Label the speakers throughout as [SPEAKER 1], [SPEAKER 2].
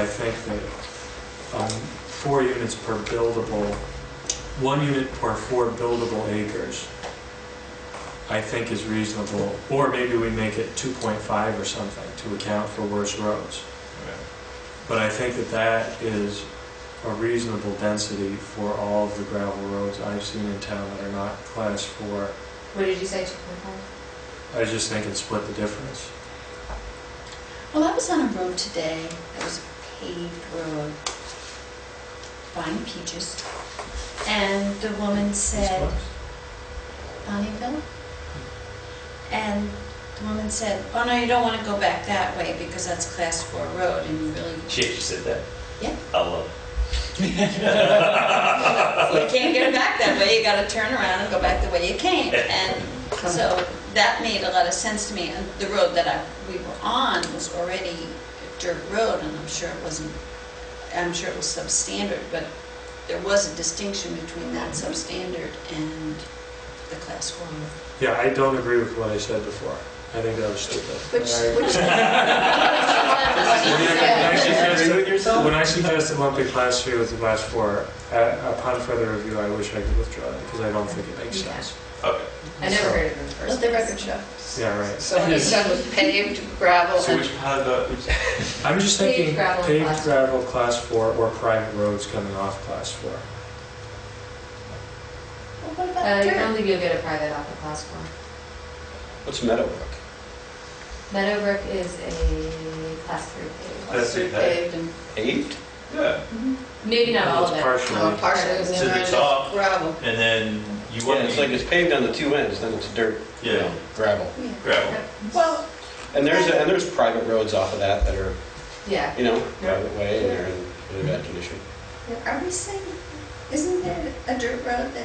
[SPEAKER 1] I think that um, four units per buildable, one unit per four buildable acres, I think is reasonable, or maybe we make it 2.5 or something to account for worse roads. But I think that that is a reasonable density for all of the gravel roads I've seen in town that are not class four.
[SPEAKER 2] What did you say, two point five?
[SPEAKER 1] I just think it split the difference.
[SPEAKER 3] Well, I was on a road today that was a paved road, buying peaches, and the woman said, Bonneville? And the woman said, oh no, you don't want to go back that way because that's class four road and you really,
[SPEAKER 4] She actually said that?
[SPEAKER 3] Yeah.
[SPEAKER 4] I love it.
[SPEAKER 3] you can't get back that way, you gotta turn around and go back the way you came. And so that made a lot of sense to me, and the road that I, we were on was already a dirt road, and I'm sure it wasn't, I'm sure it was substandard, but there was a distinction between that substandard and the class four road.
[SPEAKER 1] Yeah, I don't agree with what I said before. I think that was stupid.
[SPEAKER 2] Which,
[SPEAKER 1] I-
[SPEAKER 2] which.
[SPEAKER 1] When I- when I suggested-
[SPEAKER 4] yourself?
[SPEAKER 1] When I suggested lumping class three with the class four, uh, upon further review, I wish I could withdraw it because I don't think it makes sense.
[SPEAKER 4] Okay.
[SPEAKER 2] I never heard of them first.
[SPEAKER 3] Let the record show.
[SPEAKER 1] Yeah, right.
[SPEAKER 2] So what he's done with paved gravel
[SPEAKER 4] So
[SPEAKER 2] and,
[SPEAKER 4] which part of the, which-
[SPEAKER 1] I'm just
[SPEAKER 2] Paved
[SPEAKER 1] thinking
[SPEAKER 2] gravel,
[SPEAKER 1] paved
[SPEAKER 2] class-
[SPEAKER 1] gravel, class four, or private roads coming off class four.
[SPEAKER 3] Well, what
[SPEAKER 2] uh,
[SPEAKER 3] about
[SPEAKER 2] you
[SPEAKER 3] dirt?
[SPEAKER 2] don't think you'll get a private off of class four.
[SPEAKER 5] What's Meadowbrook?
[SPEAKER 2] Meadowbrook is a class three paved.
[SPEAKER 4] That's it, that-
[SPEAKER 2] Paved and-
[SPEAKER 5] Paved?
[SPEAKER 4] yeah,
[SPEAKER 2] Maybe not all of
[SPEAKER 1] It's
[SPEAKER 2] it.
[SPEAKER 1] partially.
[SPEAKER 2] Uh, Partially.
[SPEAKER 4] To the top.
[SPEAKER 2] Gravel.
[SPEAKER 4] and then you
[SPEAKER 5] Yeah,
[SPEAKER 4] want
[SPEAKER 5] it's like
[SPEAKER 4] to,
[SPEAKER 5] it's paved on the two ends, then it's dirt. you
[SPEAKER 4] Yeah.
[SPEAKER 5] know, Gravel.
[SPEAKER 3] Yeah.
[SPEAKER 4] gravel.
[SPEAKER 3] Well,
[SPEAKER 5] And there's, and there's private roads off of that that are,
[SPEAKER 2] Yeah.
[SPEAKER 5] you know, private way and they're in really bad condition.
[SPEAKER 3] Are we saying, isn't there a dirt road that,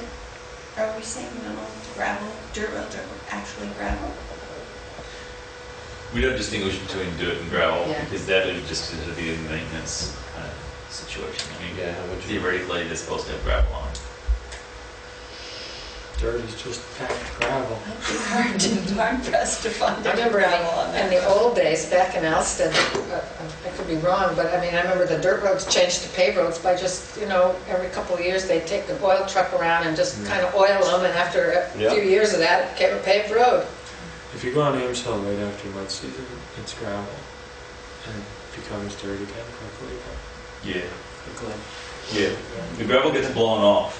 [SPEAKER 3] are we saying an old gravel, dirt roads are actually gravel?
[SPEAKER 6] We don't distinguish between dirt and gravel
[SPEAKER 2] Yeah.
[SPEAKER 6] because that would just sort of be a maintenance kind of situation. I mean,
[SPEAKER 5] Yeah, how would you?
[SPEAKER 6] theoretically, they're supposed to have gravel on. it.
[SPEAKER 1] Dirt is just packed gravel.
[SPEAKER 3] I'd be hard to- hard pressed to find
[SPEAKER 7] I
[SPEAKER 3] any
[SPEAKER 7] remember in
[SPEAKER 3] gravel on
[SPEAKER 7] the, in
[SPEAKER 3] that.
[SPEAKER 7] the old days, back in Alston, uh, I could be wrong, but I mean, I remember the dirt roads changed to paved roads by just, you know, every couple of years, they'd take the oil truck around and
[SPEAKER 4] Mm.
[SPEAKER 7] just kind of oil them, and after a
[SPEAKER 5] Yeah.
[SPEAKER 7] few years of that, it became a paved road.
[SPEAKER 1] If you go on Ames Hill right after mud season, it's gravel and becomes dirt again quickly.
[SPEAKER 6] Yeah,
[SPEAKER 1] Quickly.
[SPEAKER 6] yeah. The gravel gets blown off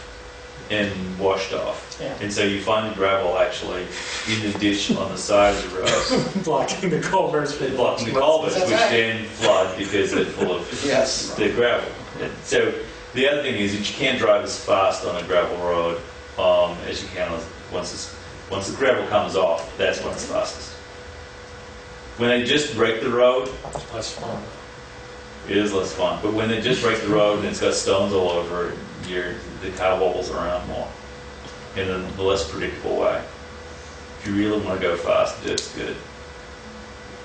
[SPEAKER 6] and washed off.
[SPEAKER 7] Yeah.
[SPEAKER 6] And so you find the gravel actually in the ditch on the side of the road,
[SPEAKER 1] Blocking the culverts. for-
[SPEAKER 6] blocking the culverts,
[SPEAKER 7] That's
[SPEAKER 6] which
[SPEAKER 7] right.
[SPEAKER 6] then flood because they're full of
[SPEAKER 5] Yes.
[SPEAKER 6] the gravel. So the other thing is that you can't drive as fast on a gravel road um, as you can on- once it's, once the gravel comes off. That's when it's fastest. When they just break the road,
[SPEAKER 1] Less fun.
[SPEAKER 6] it is less fun. But when they just break the road and it's got stones all over, it, you're, the car wobbles around more in a less predictable way. If you really want to go fast, dirt's good.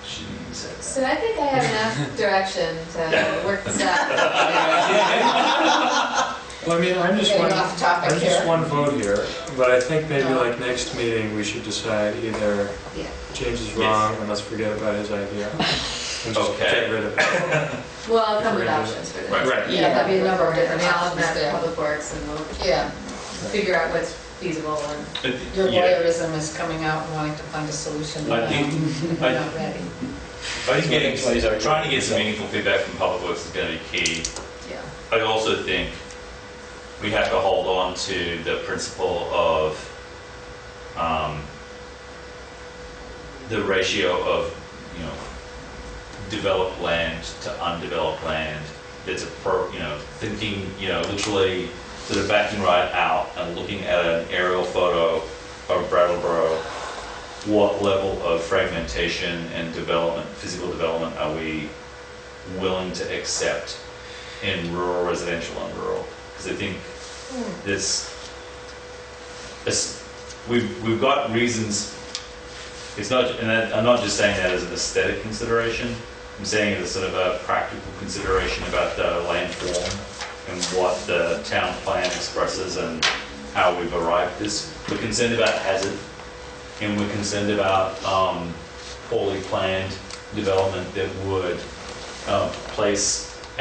[SPEAKER 6] Shouldn't even say that.
[SPEAKER 2] So I think I have enough direction to work this out.
[SPEAKER 1] Well, I mean, I'm just
[SPEAKER 7] Getting
[SPEAKER 1] one,
[SPEAKER 7] off topic
[SPEAKER 1] I'm just
[SPEAKER 7] here.
[SPEAKER 1] one vote here, but I think maybe like next meeting, we should decide either
[SPEAKER 2] Yeah.
[SPEAKER 1] James is
[SPEAKER 6] Yes.
[SPEAKER 1] wrong and let's forget about his idea. And just
[SPEAKER 6] Okay.
[SPEAKER 1] get rid of it.
[SPEAKER 2] Well, I'll come with options for this.
[SPEAKER 6] Right.
[SPEAKER 1] Right.
[SPEAKER 2] Yeah, there'll be a number of different
[SPEAKER 7] Yeah.
[SPEAKER 2] options there, public works, and we'll
[SPEAKER 7] Yeah,
[SPEAKER 2] figure out what's feasible and.
[SPEAKER 6] But,
[SPEAKER 7] your
[SPEAKER 6] yeah,
[SPEAKER 7] voyeurism is coming out and wanting to find a solution.
[SPEAKER 6] I think,
[SPEAKER 7] We're
[SPEAKER 6] I
[SPEAKER 7] not ready.
[SPEAKER 6] I think getting,
[SPEAKER 5] Plays out.
[SPEAKER 6] trying to get some meaningful feedback from Public Works is going to be key.
[SPEAKER 2] Yeah.
[SPEAKER 6] I also think we have to hold on to the principle of um, the ratio of, you know, developed land to undeveloped land. That's a pro, you know, thinking, you know, literally sort of backing right out and looking at an aerial photo of Brattleboro what level of fragmentation and development, physical development, are we willing to accept in rural residential and rural? Because I think this, this, we've, we've got reasons, it's not, and I- I'm not just saying that as an aesthetic consideration, I'm saying it as sort of a practical consideration about the land form and what the town plan expresses and how we've arrived at this. We're concerned about hazard and we're concerned about um, poorly planned development that would uh, place